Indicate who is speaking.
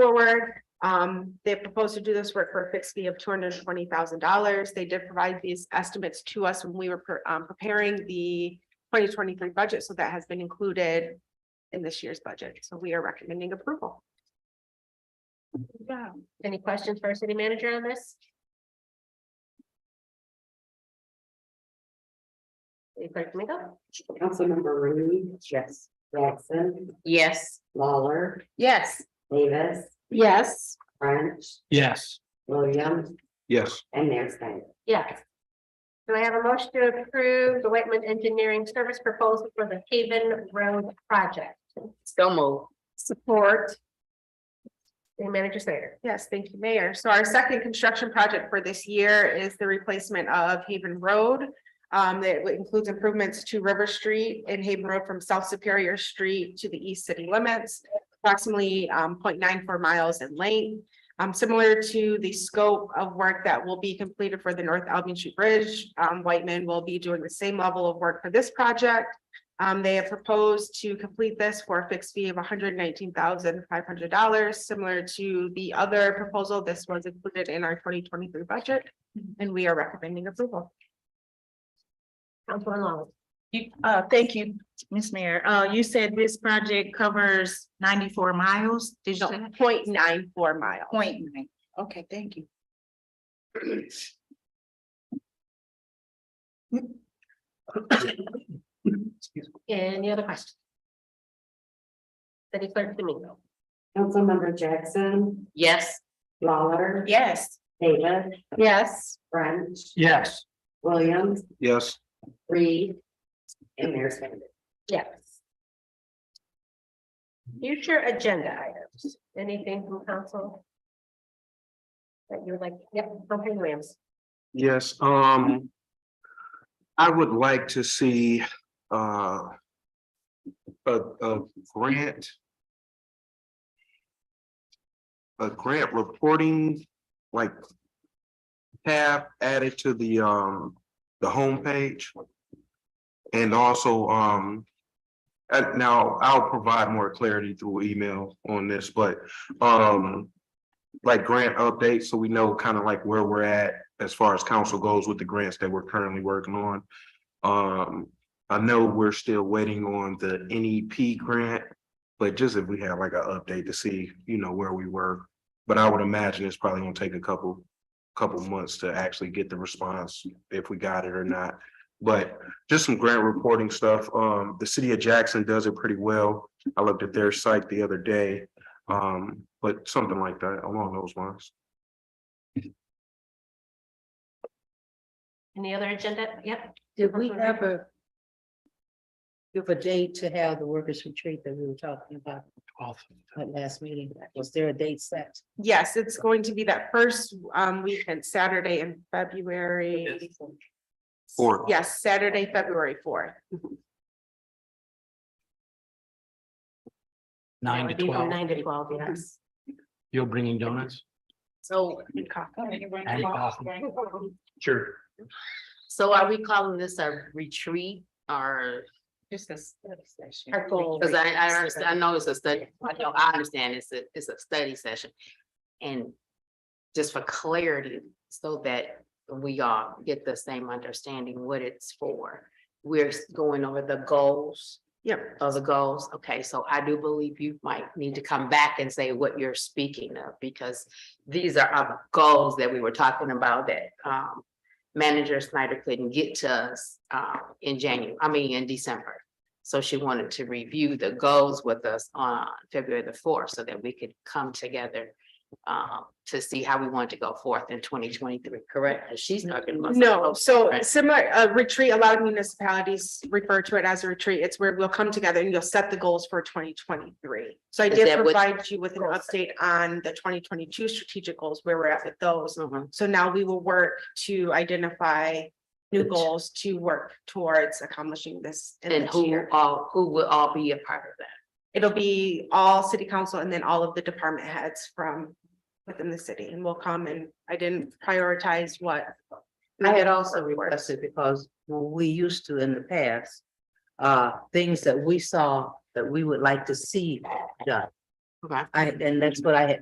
Speaker 1: forward. Um, they proposed to do this work for a fixed fee of two hundred and twenty thousand dollars. They did provide these estimates to us when we were pre- um, preparing the twenty twenty-three budget, so that has been included in this year's budget. So we are recommending approval.
Speaker 2: Yeah. Any questions for our city manager on this? City Clerk Domingo?
Speaker 3: Councilmember Reed. Yes. Jackson,
Speaker 2: Yes.
Speaker 3: Lawler,
Speaker 2: Yes.
Speaker 3: Davis,
Speaker 1: Yes.
Speaker 3: French,
Speaker 4: Yes.
Speaker 3: Williams,
Speaker 4: Yes.
Speaker 3: and Mayor Snyder.
Speaker 2: Yes. Do I have a motion to approve the Whitman Engineering Service proposal for the Haven Road project?
Speaker 5: So move.
Speaker 1: Support.
Speaker 2: City Manager Slater?
Speaker 1: Yes, thank you, Mayor. So our second construction project for this year is the replacement of Haven Road. Um, that includes improvements to River Street and Haven Road from South Superior Street to the east city limits. Approximately um 0.94 miles in length. Um, similar to the scope of work that will be completed for the North Albion Street Bridge, um, Whiteman will be doing the same level of work for this project. Um, they have proposed to complete this for a fixed fee of hundred nineteen thousand five hundred dollars, similar to the other proposal. This was included in our twenty twenty-three budget. And we are recommending approval.
Speaker 2: Councilman Long?
Speaker 6: You, uh, thank you, Ms. Mayor. Uh, you said this project covers ninety-four miles, did you
Speaker 1: No,
Speaker 6: say?
Speaker 1: 0.94 miles.
Speaker 6: Point nine. Okay, thank you.
Speaker 2: Any other questions? City Clerk Domingo?
Speaker 3: Councilmember Jackson,
Speaker 5: Yes.
Speaker 3: Lawler.
Speaker 6: Yes.
Speaker 3: Davis,
Speaker 1: Yes.
Speaker 3: French,
Speaker 4: Yes.
Speaker 3: Williams,
Speaker 4: Yes.
Speaker 3: Reed, and Mayor Snyder.
Speaker 2: Yes. Future agenda items, anything from council? That you would like, yep, from Williams.
Speaker 4: Yes, um. I would like to see, uh. A, a grant. A grant reporting, like. Tab added to the, um, the homepage. And also, um. And now I'll provide more clarity through email on this, but, um. Like grant updates, so we know kind of like where we're at as far as council goes with the grants that we're currently working on. Um, I know we're still waiting on the NEP grant, but just if we have like an update to see, you know, where we were. But I would imagine it's probably gonna take a couple, couple months to actually get the response, if we got it or not. But just some grant reporting stuff. Um, the city of Jackson does it pretty well. I looked at their site the other day. Um, but something like that along those lines.
Speaker 2: Any other agenda? Yep,
Speaker 7: Did we ever? Give a date to have the workers retreat that we were talking about at last meeting, was there a date set?
Speaker 1: Yes, it's going to be that first um weekend, Saturday in February.
Speaker 4: Fourth.
Speaker 1: Yes, Saturday, February fourth.
Speaker 2: That
Speaker 8: Nine to
Speaker 2: would be from
Speaker 8: twelve,
Speaker 2: Nine to twelve, yes.
Speaker 8: you're bringing donuts?
Speaker 5: So,
Speaker 8: And coffee. Sure.
Speaker 5: so are we calling this a retreat or?
Speaker 7: Just a study session.
Speaker 2: Our goal.
Speaker 5: Cause I, I understand, I know it's a study, I know, I understand it's a, it's a study session. And just for clarity, so that we all get the same understanding what it's for. We're going over the goals
Speaker 1: Yep.
Speaker 5: of the goals. Okay, so I do believe you might need to come back and say what you're speaking of, because these are our goals that we were talking about that um manager Snyder couldn't get to us uh in January, I mean, in December. So she wanted to review the goals with us on February the fourth so that we could come together um to see how we want to go forth in twenty twenty-three, correct? 'Cause She's not gonna.
Speaker 1: No, so
Speaker 5: Right.
Speaker 1: similar, a retreat, a lot of municipalities refer to it as a retreat. It's where we'll come together and you'll set the goals for twenty twenty-three. So I
Speaker 5: Is
Speaker 1: did
Speaker 5: that what-
Speaker 1: provide you with an update on the twenty twenty-two strategic goals, where we're at with those.
Speaker 5: Mhm.
Speaker 1: So now we will work to identify new goals to work towards accomplishing this in
Speaker 5: And
Speaker 1: this
Speaker 5: who
Speaker 1: year.
Speaker 5: all, who will all be a part of that?
Speaker 1: It'll be all city council and then all of the department heads from within the city and we'll come and I didn't prioritize what.
Speaker 7: I had also requested because when we used to in the past, uh, things that we saw that we would like to see done.
Speaker 5: Okay.
Speaker 7: I, and that's what I had